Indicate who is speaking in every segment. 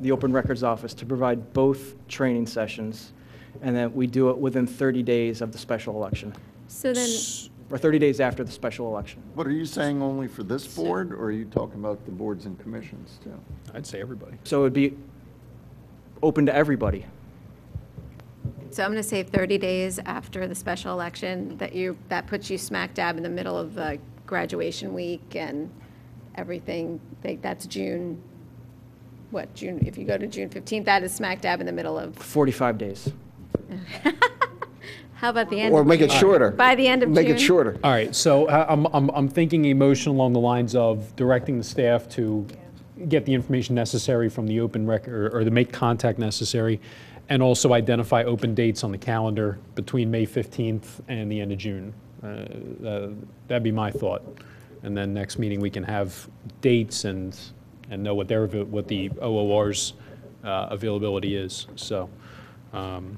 Speaker 1: the Open Records Office to provide both training sessions, and that we do it within 30 days of the special election,
Speaker 2: So then,
Speaker 1: or 30 days after the special election.
Speaker 3: What, are you saying only for this board, or are you talking about the boards and commissions too?
Speaker 4: I'd say everybody.
Speaker 1: So it'd be open to everybody.
Speaker 2: so I'm going to say 30 days after the special election, that you, that puts you smack dab in the middle of uh, graduation week and everything. Like, That's June, what, June, if you go to June 15th, that is smack dab in the middle of,
Speaker 1: 45 days.
Speaker 2: how about the end?
Speaker 5: Or make it shorter.
Speaker 2: By the end of
Speaker 5: Make
Speaker 2: June?
Speaker 5: it shorter.
Speaker 4: All right, so uh, I'm, I'm, I'm thinking a motion along the lines of directing the staff to get the information necessary from the open record, or to make contact necessary, and also identify open dates on the calendar between May 15th and the end of June. Uh, uh, That'd be my thought. And then next meeting, we can have dates and, and know what their, avail- what the OOR's uh, availability is, so. um,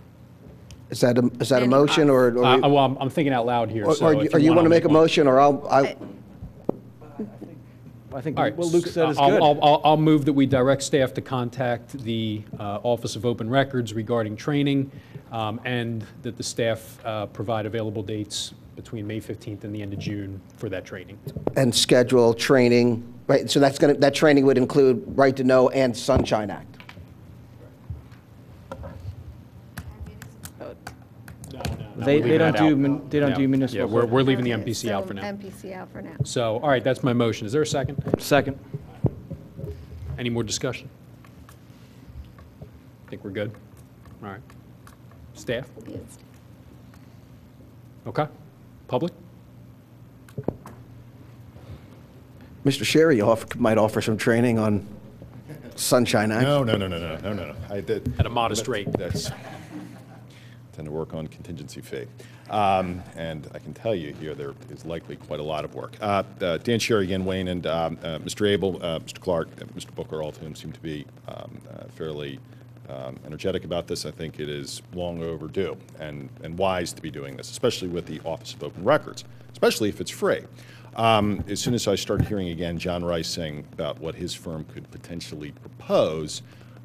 Speaker 5: Is that a, is that a
Speaker 2: Any-
Speaker 5: motion, or, or-
Speaker 4: I- Well, I'm I'm thinking out loud here,
Speaker 5: or
Speaker 4: so.
Speaker 5: or
Speaker 4: if
Speaker 5: you- or you want
Speaker 4: I'll
Speaker 5: to make a
Speaker 4: one.
Speaker 5: motion, or I'll, I,
Speaker 1: I think
Speaker 4: All right.
Speaker 1: what Luke
Speaker 4: s-
Speaker 1: said is
Speaker 4: I'll- I'll,
Speaker 1: good.
Speaker 4: I'll, I'll move that we direct staff to contact the uh, Office of Open Records regarding training, um, and that the staff uh, provide available dates between May 15th and the end of June for that training.
Speaker 5: and schedule training, right, so that's going to, that training would include Right to Know and Sunshine Act.
Speaker 1: They, they don't
Speaker 4: that
Speaker 1: do,
Speaker 4: out.
Speaker 1: mun- they don't
Speaker 4: Yeah.
Speaker 1: do municipal.
Speaker 4: Yeah, we're, we're leaving the
Speaker 2: Okay,
Speaker 4: MPC out
Speaker 2: so
Speaker 4: for now.
Speaker 2: MPC out for now.
Speaker 4: So, all right, that's my motion. Is there a second?
Speaker 1: Second.
Speaker 4: Any more discussion? Think we're good? All right. Staff?
Speaker 2: Yes.
Speaker 4: Okay. Public?
Speaker 5: Mr. Sherry off- might offer some training on Sunshine Act.
Speaker 6: No, no, no, no, no, no, no. I did.
Speaker 4: At a modest rate.
Speaker 6: That's, tend to work on contingency fee. Um, And I can tell you here, there is likely quite a lot of work. Uh, uh, Dan Sherry, again, Wayne, and um, uh, Mr. Abel, uh, Mr. Clark, and Mr. Booker, all of whom seem to be um, uh, fairly um, energetic about this. I think it is long overdue and, and wise to be doing this, especially with the Office of Open Records, especially if it's free. Um, As soon as I started hearing again John Rice saying about what his firm could potentially propose,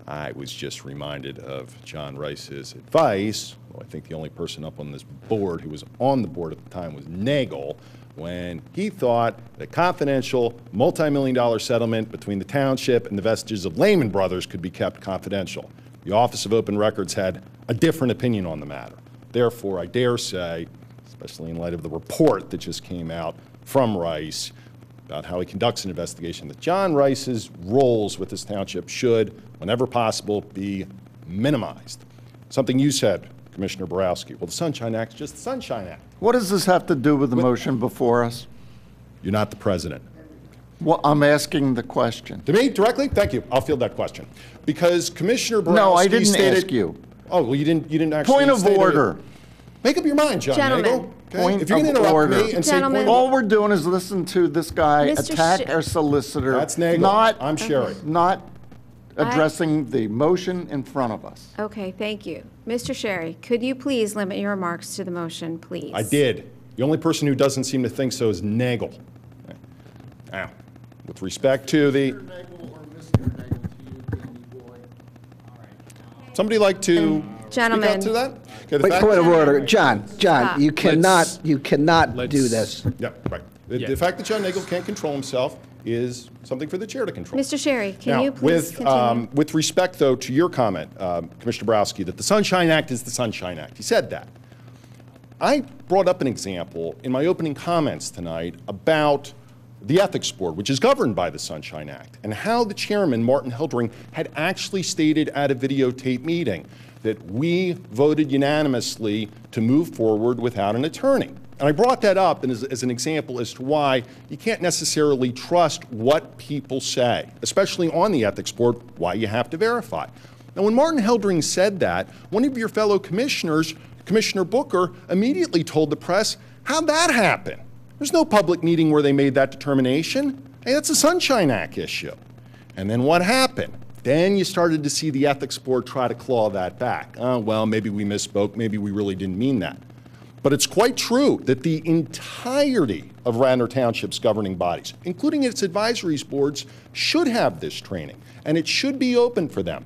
Speaker 6: I was just reminded of John Rice's advice. Well, I think the only person up on this board who was on the board at the time was Nagel when he thought the confidential multi-million dollar settlement between the township and the vestiges of Lehman Brothers could be kept confidential. The Office of Open Records had a different opinion on the matter. Therefore, I dare say, especially in light of the report that just came out from Rice, about how he conducts an investigation, that John Rice's roles with this township should, whenever possible, be minimized. Something you said, Commissioner Borowski. Well, the Sunshine Act's just the Sunshine Act.
Speaker 3: What does this have to do with the motion before us?
Speaker 6: You're not the president.
Speaker 3: Well, I'm asking the question.
Speaker 6: To me, directly? Thank you. I'll field that question. Because Commissioner Borowski
Speaker 3: No, I didn't
Speaker 6: stated-
Speaker 3: ask you.
Speaker 6: Oh, well, you didn't, you didn't actually
Speaker 3: Point of
Speaker 6: state it.
Speaker 3: order.
Speaker 6: Make up your mind, John
Speaker 2: Gentlemen.
Speaker 6: Nagel, okay?
Speaker 3: Point
Speaker 6: If you're going
Speaker 3: of
Speaker 6: to interrupt
Speaker 3: order.
Speaker 6: me and say point of
Speaker 2: Gentlemen.
Speaker 6: order-
Speaker 3: All we're doing is listen to this guy
Speaker 2: Mr.
Speaker 3: attack
Speaker 2: Shi-
Speaker 3: our solicitor.
Speaker 6: That's Nagel.
Speaker 3: Not,
Speaker 6: I'm Sherry.
Speaker 3: not addressing the motion in front of us.
Speaker 2: Okay, thank you. Mr. Sherry, could you please limit your remarks to the motion, please?
Speaker 6: I did. The only person who doesn't seem to think so is Nagel. Now, with respect to the, somebody like to speak
Speaker 2: Gentlemen.
Speaker 6: out to that? Okay, the
Speaker 5: Wait,
Speaker 6: fact-
Speaker 5: point of order, John,
Speaker 2: Stop.
Speaker 5: John, you cannot,
Speaker 4: Let's-
Speaker 5: you cannot do
Speaker 4: let's-
Speaker 5: this.
Speaker 6: Yeah, right. The-
Speaker 4: Yeah.
Speaker 6: The fact that John Nagel can't control himself is something for the chair to control.
Speaker 2: Mr. Sherry, can
Speaker 6: Now,
Speaker 2: you please
Speaker 6: with,
Speaker 2: continue?
Speaker 6: um, with respect, though, to your comment, um, Commissioner Borowski, that the Sunshine Act is the Sunshine Act. He said that. I brought up an example in my opening comments tonight about the Ethics Board, which is governed by the Sunshine Act, and how the chairman, Martin Heldring, had actually stated at a videotape meeting that we voted unanimously to move forward without an attorney. And I brought that up and as, as an example as to why you can't necessarily trust what people say, especially on the Ethics Board, why you have to verify. Now, when Martin Heldring said that, one of your fellow commissioners, Commissioner Booker, immediately told the press, How'd that happen? There's no public meeting where they made that determination. Hey, that's a Sunshine Act issue. And then what happened? Then you started to see Uh, the ethics board try to claw that back. Oh, well, maybe we misspoke. Maybe we really didn't mean that. But it's quite true that the entirety of Radnor Township's governing bodies, including its advisory boards, should have this training, and it should be open for them.